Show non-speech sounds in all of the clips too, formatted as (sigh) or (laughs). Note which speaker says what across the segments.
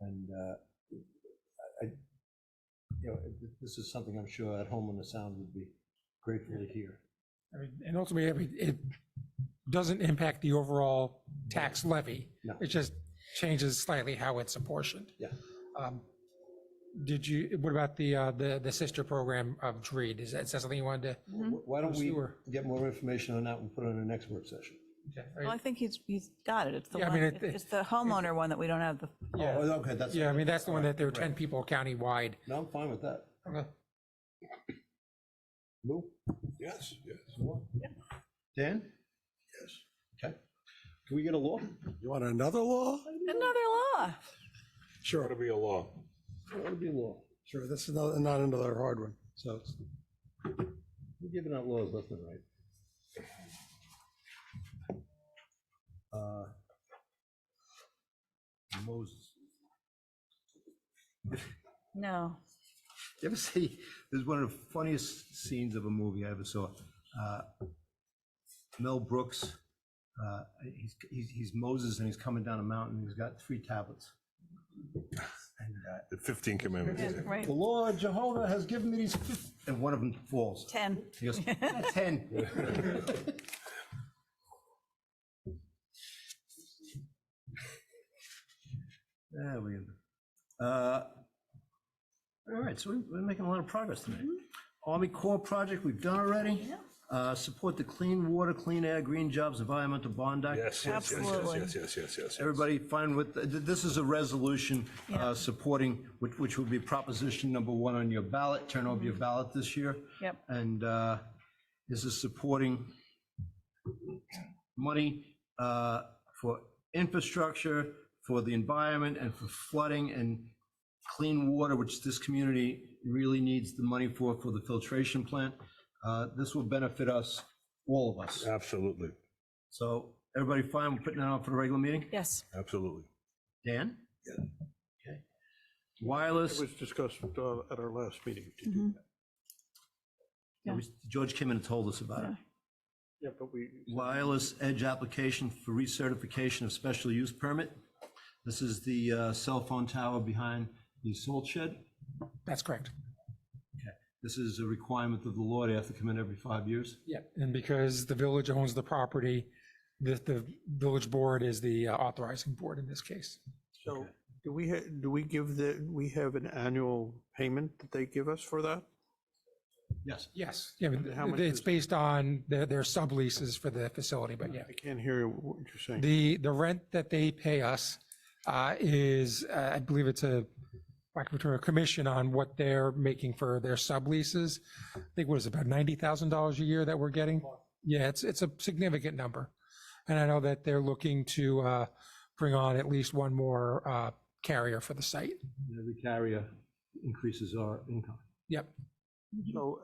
Speaker 1: And, uh, I, I- you know, it- this is something I'm sure at home on the sound would be grateful to hear.
Speaker 2: I mean, and ultimately, I mean, it doesn't impact the overall tax levy.
Speaker 1: No.
Speaker 2: It just changes slightly how it's apportioned.
Speaker 1: Yeah.
Speaker 2: Um, Did you, what about the, uh, the, the sister program of DREED? Is that is that something you wanted to?
Speaker 1: Wh- Why don't we
Speaker 2: Sure.
Speaker 1: get more information on that and put it in the next work session?
Speaker 3: Well, I think he's, he's got it. It's the
Speaker 2: Yeah, I
Speaker 3: one,
Speaker 2: mean, it-
Speaker 3: it's the homeowner one that we don't have the,
Speaker 2: Yeah.
Speaker 1: Oh, okay, that's.
Speaker 2: Yeah, I mean, that's the one that there were
Speaker 1: Right.
Speaker 2: 10 people countywide.
Speaker 1: No, I'm fine with that.
Speaker 2: Okay.
Speaker 1: Lou?
Speaker 4: Yes, yes.
Speaker 1: Dan?
Speaker 4: Yes.
Speaker 1: Okay. Can we get a law?
Speaker 4: You want another law?
Speaker 3: another law.
Speaker 4: Sure. It'll be a law.
Speaker 1: That would be a law.
Speaker 4: Sure, that's not, not another hard one, so. it's-
Speaker 1: We're giving out laws left and right. Uh, Moses.
Speaker 3: No.
Speaker 1: (laughs) You ever see, there's one of the funniest scenes of a movie I ever saw. Uh, Mel Brooks, uh, he's, he's he's Moses and he's coming down a mountain. He's got three tablets. And uh,
Speaker 5: The 15 commandments.
Speaker 3: Yeah, Right.
Speaker 1: the Lord Jehovah has given me these, fif-" and one of them falls.
Speaker 3: 10.
Speaker 1: He goes, "Ah, 10. There we go. Uh, All right, so we- we're making a lot of progress tonight. Army Corps project, we've done already. Uh, Support the Clean Water, Clean Air, Green Jobs, Environmental Bond Act.
Speaker 5: Yes, yes, yes, yes,
Speaker 3: Absolutely.
Speaker 5: yes, yes, yes, yes.
Speaker 1: Everybody fine with, th- this is a resolution uh,
Speaker 3: Yeah.
Speaker 1: supporting, which, which would be proposition number one on your ballot, turn over your ballot this year.
Speaker 3: Yep.
Speaker 1: And uh, this is supporting money uh, for infrastructure, for the environment, and for flooding and clean water, which this community really needs the money for, for the filtration plant. Uh, This will benefit us, all of us.
Speaker 5: Absolutely,
Speaker 1: So everybody fine with putting that on for the regular meeting?
Speaker 3: Yes.
Speaker 5: absolutely.
Speaker 1: Dan?
Speaker 5: Yeah.
Speaker 1: Okay. Wireless,
Speaker 6: It was discussed uh, at our last meeting.
Speaker 3: Mhm. yeah.
Speaker 1: George came in and told us about it.
Speaker 6: Yeah, but we,
Speaker 1: Wireless edge application for recertification of special use permit. This is the uh, cell phone tower behind the salt shed.
Speaker 2: That's correct.
Speaker 1: This is a requirement of the law. They have to come in every five years.
Speaker 2: Yeah. And because the village owns the property, the, the village board is the uh, authorizing board in this case.
Speaker 6: so do we, ha- do we give the, we have an annual payment that they give us for that?
Speaker 1: Yes.
Speaker 2: Yes, yeah, but
Speaker 6: How much
Speaker 2: it's
Speaker 6: is-
Speaker 2: based on their, their subleases for the facility, but yeah.
Speaker 6: I can't hear what you're saying.
Speaker 2: The, the rent that they pay us uh, is, uh, I believe it's a, like, a commission on what they're making for their subleases. I think what is it, about $90,000 a year that we're getting? Yeah, it's, it's a significant number. And I know that they're looking to uh, bring on at least one more uh, carrier for the site.
Speaker 1: Every carrier increases our income.
Speaker 2: Yep,
Speaker 6: So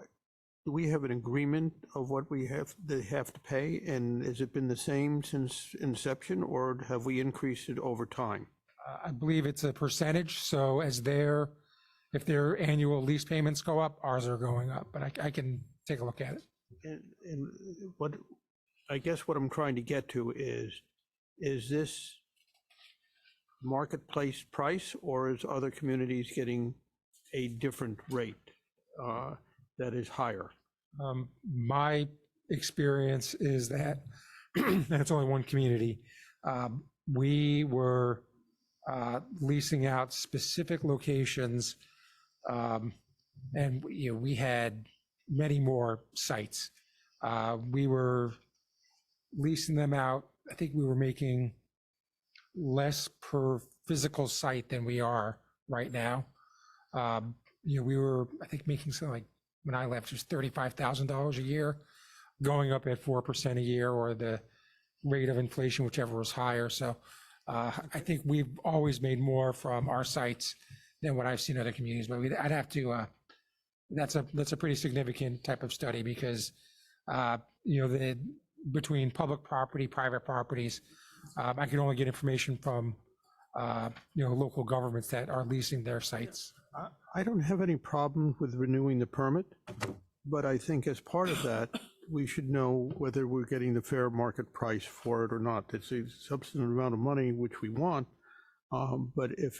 Speaker 6: do we have an agreement of what we have, they have to pay? And has it been the same since inception or have we increased it over time?
Speaker 2: Uh, I believe it's a percentage, so as their, if their annual lease payments go up, ours are going up, but I, I can take a look at it.
Speaker 6: And, and what, I guess what I'm trying to get to is, is this marketplace price or is other communities getting a different rate uh, that is higher?
Speaker 2: Um, My experience is that, (clears throat) and it's only one community, um, we were uh, leasing out specific locations. um, And, you know, we had many more sites. Uh, We were leasing them out, I think we were making less per physical site than we are right now. Um, You know, we were, I think, making something like when I left, it was thirty-five thousand dollars a year, going up at four percent a year, or the rate of inflation, whichever was higher. So uh, I think we've always made more from our sites than what I've seen other communities. But we, I'd have to. Uh, that's a that's a pretty significant type of study because uh, you know the between public property, private properties, um, I can only get information from uh, you know local governments that are leasing their sites.
Speaker 6: I- I don't have any problem with renewing the permit, but I think as part of that, we should know whether we're getting the fair market price for it or not. It's a substantive amount of money, which we want, um, but if